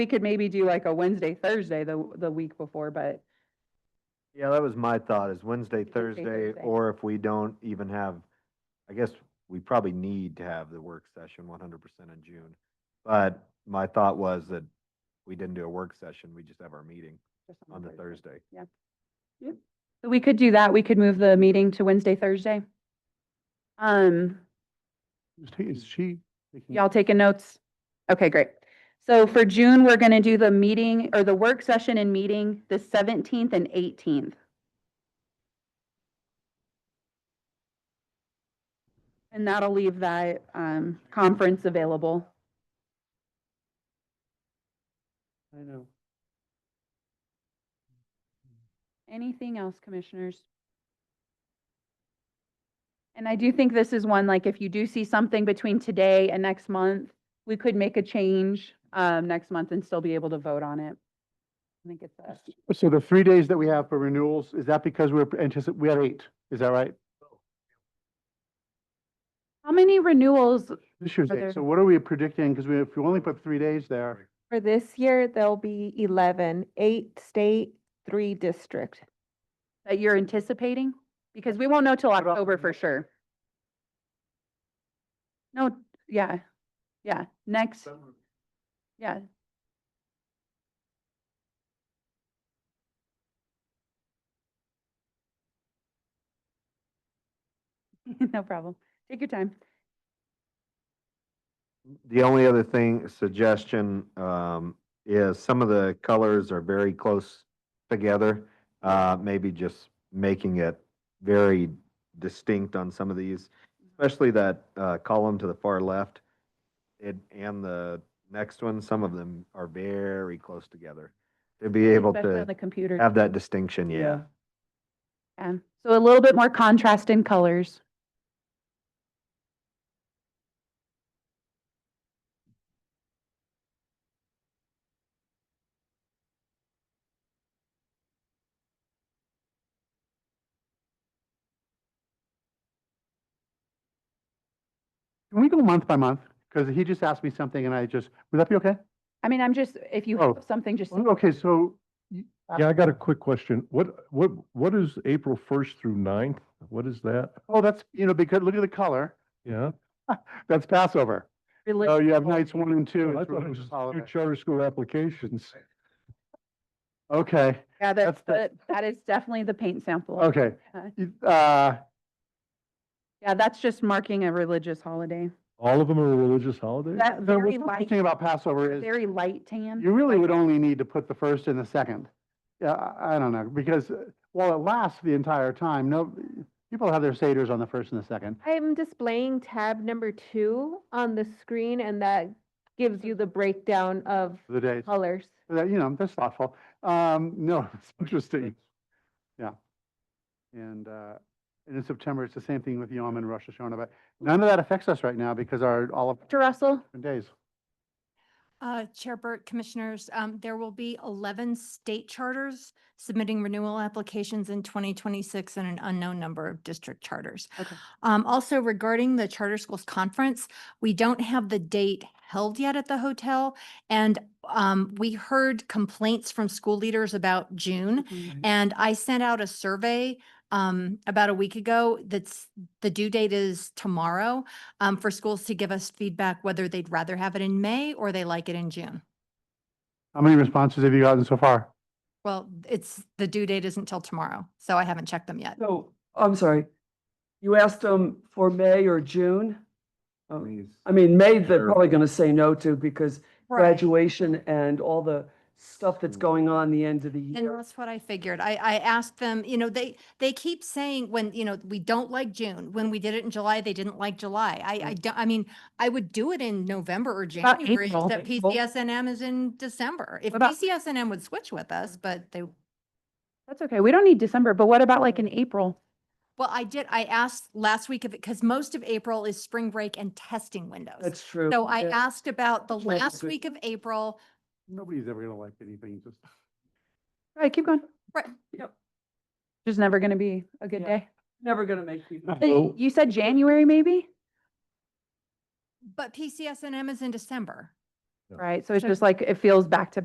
We could maybe do like a Wednesday, Thursday, the, the week before, but Yeah, that was my thought, is Wednesday, Wednesday, Thursday, Thursday. or if we don't even have, I guess we probably need to have the work session one hundred percent in June. But my thought was that we didn't do a work session, we just have our meeting just on the Thursday. So We could do that. We could move the meeting to Wednesday, Thursday. Um, Is he- Is she? taking- y'all taking notes? Okay, great. So for June, we're going to do the meeting or the work session and meeting the seventeenth and eighteenth. And that'll leave that, um, conference available. I know. Anything else, commissioners? And I do think this is one, like, if you do see something between today and next month, we could make a change um, next month and still be able to vote on it. I think it's a, So the three days that we have for renewals, is that because we're anticipating, we had eight, is that right? how many renewals This year's Are there- eight. So what are we predicting? Because we, if you only put three days there, For this year, there'll be 11, eight state, three district. that you're anticipating? Because we won't know till What about October for renewals? sure. No, yeah, yeah, next, yeah. No problem. Take your time. The only other thing, suggestion, um, is some of the colors are very close together. Uh, maybe just making it very distinct on some of these, especially that, uh, column to the far left. It, and the next one, some of them are very close together. To be able Especially on to The computer. have that distinction, yeah. Yeah. So a little bit more contrast in colors. can we go month by month? Because he just asked me something and I just, would that be okay? I mean, I'm just, if you Oh. have something, just, Okay, so Yeah, I got a quick question. What, what, what is April first through 9th? What is that? Oh, that's, you know, because look at the color. Yeah. That's Passover. relig- Oh, you have nights one and two. Oh, I it's thought it was religious just holiday. two charter school applications. Okay, yeah, that's, the that's- that is definitely the paint sample. okay. Yeah. You- Uh, Yeah, that's just marking a religious holiday. All of them are religious holidays? That the very what's light, interesting about Passover is very light tan. you really would only need to put the first and the second. Yeah, I, I don't know, because uh, while it lasts the entire time, no, people have their seders on the first and the second. I'm displaying tab number two on the screen, and that gives you the breakdown of for The days, colors. That, you know, that's thoughtful. Um, no, it's interesting. Yeah. And, uh, and in September, it's the same thing with Yom and Rosh Hashanah, but none of that affects us right now because our, all of Dr. Russell, our days. Uh, Chair Burt, Commissioners, um, there will be eleven state charters submitting renewal applications in twenty twenty-six and an unknown number of district charters. Okay. Um, also regarding the Charter Schools Conference, we don't have the date held yet at the hotel. And, um, we heard complaints from school leaders about June. And I sent out a survey um about a week ago that's the due date is tomorrow um for schools to give us feedback whether they'd rather have it in May or they like it in June. How many responses have you gotten so far? Well, it's the due date isn't till tomorrow, so I haven't checked them yet. So, I'm sorry, you asked them for May or June? Oh, I mean, May, they're probably going to say no to because graduation and all the stuff that's going on the end of the And year. that's what I figured. I, I asked them, you know, they, they keep saying when, you know, we don't like June. When we did it in July, they didn't like July. I, I don't, I mean, I would do it in November or about January, April? except April? PCSNM is in December. If What about- PCSNM would switch with us, but they, that's okay. We don't need December, but what about like in April? well, I did, I asked last week of it, because most of April is spring break and testing windows. That's true. So I Yeah. asked about the Which might be last good. week of April, Nobody's ever gonna like anything, just. All right, keep going. Right, yep. Just never going to be a good Yeah. day. Never going to make people. But y- So- You said January, maybe? but PCSNM is in December. right? So it's just like, it feels back to